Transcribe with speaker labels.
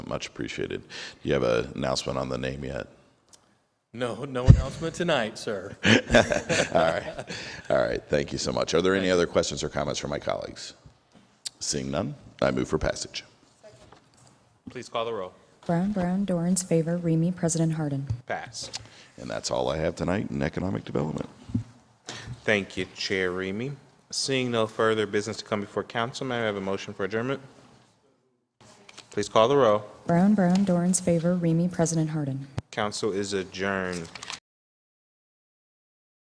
Speaker 1: Much appreciated. Do you have an announcement on the name yet?
Speaker 2: No, no announcement tonight, sir.
Speaker 1: All right, thank you so much. Are there any other questions or comments from my colleagues? Seeing none, I move for passage.
Speaker 3: Please call the roll.
Speaker 4: Brown, Brown, Dorans favor, Remy, President Harden.
Speaker 3: Pass.
Speaker 1: And that's all I have tonight in economic development.
Speaker 3: Thank you, Chair Remy. Seeing no further business to come before council, may I have a motion for adjournment? Please call the roll.
Speaker 4: Brown, Brown, Dorans favor, Remy, President Harden.
Speaker 3: Council is adjourned.